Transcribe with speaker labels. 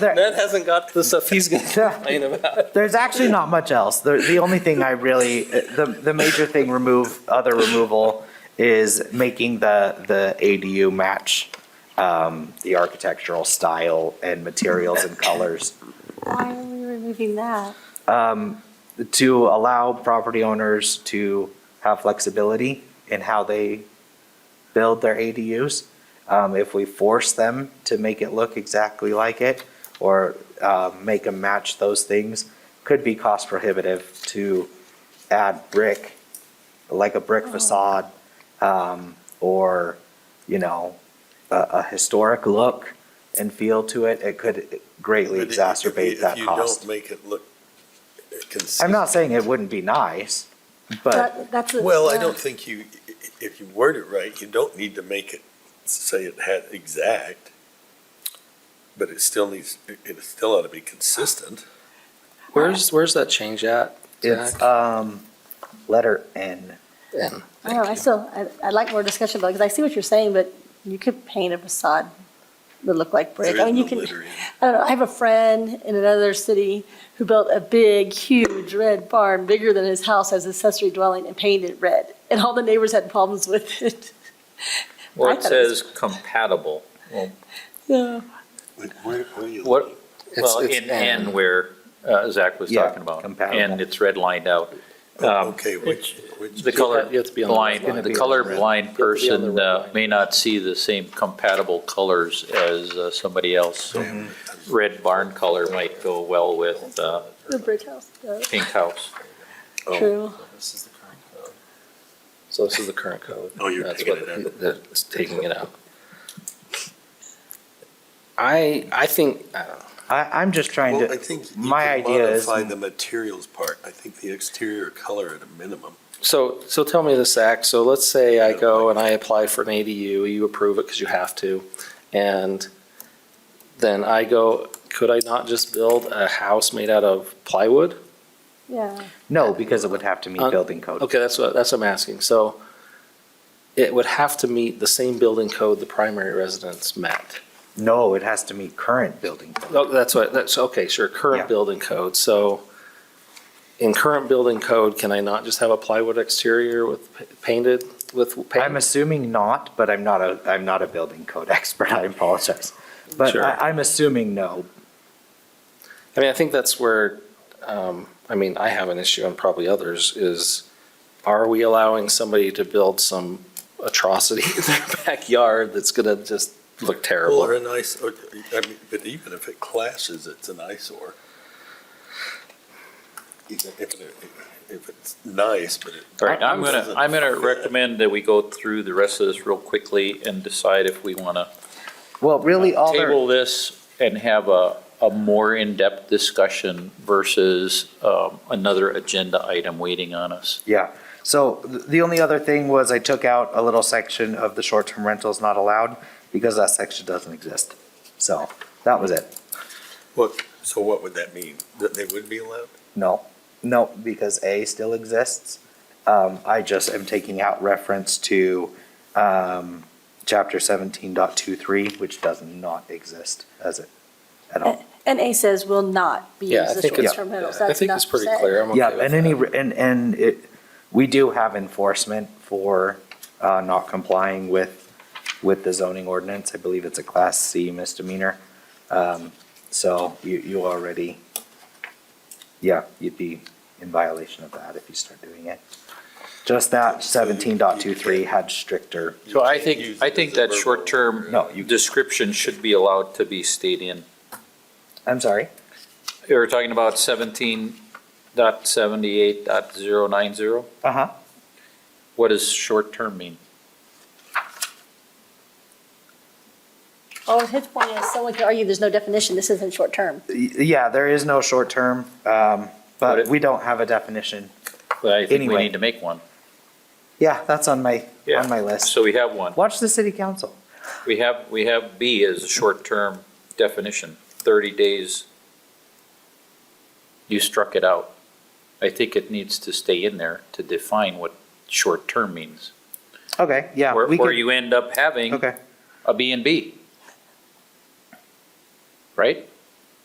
Speaker 1: There,
Speaker 2: Ned hasn't got the stuff he's going to
Speaker 1: Yeah.
Speaker 2: complain about.
Speaker 1: there's actually not much else. The, the only thing I really, the, the major thing remove, other removal is making the, the ADU match, um, the architectural style and materials and colors
Speaker 3: Why are we removing that?
Speaker 1: to allow property owners to have flexibility in how they build their ADUs. Um, if we force them to make it look exactly like it or, uh, make them match those things, could be cost prohibitive to add brick, like a brick facade, um, or, you know, a, a historic look and feel to it. It could greatly
Speaker 4: But if you- if you-
Speaker 1: exacerbate that cost.
Speaker 4: If you don't make it look consistent.
Speaker 1: I'm not saying it wouldn't be nice, but
Speaker 3: That- That's. a-
Speaker 4: Well, I
Speaker 3: yeah.
Speaker 4: don't think you, i- i- if you word it right, you don't need to make it, say it had exact, but it still needs, it- it still ought to be consistent.
Speaker 2: Where's, where's that change at?
Speaker 1: it's,
Speaker 2: Zach?
Speaker 1: um, letter N.
Speaker 2: And
Speaker 3: I don't know, I still, I- I'd like more discussion about, because I see what you're saying, but you could paint a facade that look like brick.
Speaker 4: There
Speaker 3: I mean, you
Speaker 4: is
Speaker 3: can,
Speaker 4: no
Speaker 3: I
Speaker 4: littering.
Speaker 3: don't know, I have a friend in another city who built a big, huge red barn, bigger than his house as accessory dwelling and painted it red. And all the neighbors had problems with it.
Speaker 5: Well,
Speaker 3: I
Speaker 5: it
Speaker 3: thought it was-
Speaker 5: says compatible.
Speaker 3: Yeah.
Speaker 4: Like, Where, where you?
Speaker 5: What, well,
Speaker 2: it's
Speaker 5: in N where uh, Zach was
Speaker 1: Yeah,
Speaker 5: talking about.
Speaker 1: compatible.
Speaker 5: And it's redlined out. Um,
Speaker 4: Okay, which, which,
Speaker 5: The color
Speaker 2: You have to be on the red line.
Speaker 5: blind, the
Speaker 1: It's
Speaker 5: color
Speaker 1: gonna be on the
Speaker 2: red
Speaker 5: blind
Speaker 2: line. You have to be on the
Speaker 5: person
Speaker 2: red
Speaker 5: uh,
Speaker 2: line.
Speaker 5: may not see the same compatible colors as uh, somebody else.
Speaker 1: Mm-hmm.
Speaker 5: Red barn color might go well with uh,
Speaker 3: The brick house, yeah,
Speaker 5: pink house.
Speaker 4: Oh.
Speaker 3: true.
Speaker 2: This is the current code. So this is the current code.
Speaker 4: Oh, you're
Speaker 2: That's
Speaker 4: taking
Speaker 2: what-
Speaker 4: it
Speaker 2: That's taking it out. I, I think, I don't know.
Speaker 1: I, I'm just trying
Speaker 4: well,
Speaker 1: to,
Speaker 4: I think you
Speaker 1: my
Speaker 4: can
Speaker 1: idea is-
Speaker 4: modify the materials part. I think the exterior color at a minimum.
Speaker 2: So, so tell me this, Zach. So let's say I go and I apply for an ADU, you approve it because you have to. And then I go, could I not just build a house made out of plywood?
Speaker 3: Yeah,
Speaker 1: no, because it would have to meet
Speaker 2: Uh,
Speaker 1: building code.
Speaker 2: Okay, that's what, that's what I'm asking. So it would have to meet the same building code the primary residence met.
Speaker 1: No, it has to meet current building. code.
Speaker 2: Oh, that's what, that's, okay, sure,
Speaker 1: Yeah.
Speaker 2: current building code. So in current building code, can I not just have a plywood exterior with pa- painted, with paint?
Speaker 1: I'm assuming not, but I'm not a, I'm not a building code expert, I apologize. But
Speaker 2: Sure.
Speaker 1: I, I'm assuming no.
Speaker 2: I mean, I think that's where, um, I mean, I have an issue and probably others is, are we allowing somebody to build some atrocity in their backyard that's gonna just look
Speaker 4: Well, or
Speaker 2: terrible?
Speaker 4: an ice, or, I mean, but even if it clashes, it's an eyesore. Even If, it- if it's nice, but it.
Speaker 5: All right,
Speaker 1: I-
Speaker 5: I'm gonna, I'm gonna recommend that we go through the rest of this real quickly and decide if we want to
Speaker 1: Well, really,
Speaker 2: Uh,
Speaker 1: all
Speaker 5: Uh, table
Speaker 1: they're,
Speaker 5: this and have a, a more in-depth discussion versus um, another agenda item waiting on us.
Speaker 1: yeah. So th- the only other thing was I took out a little section of the short-term rentals not allowed because that section doesn't exist. So that was it.
Speaker 4: What, so what would that mean? That they would be allowed?
Speaker 1: No, no, because A still exists. Um, I just am taking out reference to, um, chapter seventeen dot two three, which does not exist as it, at all.
Speaker 3: and A says will not be
Speaker 2: Yeah, I
Speaker 3: used as
Speaker 2: think it's,
Speaker 3: short-term rentals.
Speaker 2: I
Speaker 3: That's
Speaker 2: think
Speaker 3: not
Speaker 2: it's pretty
Speaker 3: said.
Speaker 2: clear. I'm okay
Speaker 1: Yeah,
Speaker 2: with
Speaker 1: and
Speaker 2: that.
Speaker 1: any, and, and it, we do have enforcement for, uh, not complying with, with the zoning ordinance. I believe it's a class C misdemeanor. Um, so you, you already, yeah, you'd be in violation of that if you start doing it. Just that seventeen point two three had stricter,
Speaker 5: So I
Speaker 4: You can't use
Speaker 5: think,
Speaker 4: it
Speaker 5: I think
Speaker 4: as a
Speaker 5: that
Speaker 4: verbal-
Speaker 5: short-term
Speaker 1: No, you-
Speaker 5: description should be allowed to be stayed in.
Speaker 1: I'm sorry,
Speaker 5: We were talking about seventeen dot seventy-eight dot zero nine zero.
Speaker 1: uh-huh.
Speaker 5: What does short-term mean?
Speaker 3: Oh, his point is, someone could argue there's no definition, this isn't short-term.
Speaker 1: Y- Yeah, there is no short term, um,
Speaker 5: But
Speaker 1: but
Speaker 5: it-
Speaker 1: we don't have a definition.
Speaker 5: But I think we
Speaker 1: Anyway.
Speaker 5: need to make one.
Speaker 1: Yeah, that's on my,
Speaker 5: Yeah.
Speaker 1: on my list.
Speaker 5: So we have one.
Speaker 1: Watch the city council.
Speaker 5: We have, we have B as a short-term definition, thirty days. You struck it out. I think it needs to stay in there to define what short-term means.
Speaker 1: Okay, yeah.
Speaker 5: Where,
Speaker 1: we
Speaker 5: where
Speaker 1: could-
Speaker 5: you end up having
Speaker 1: Okay,
Speaker 5: a B and B. Right?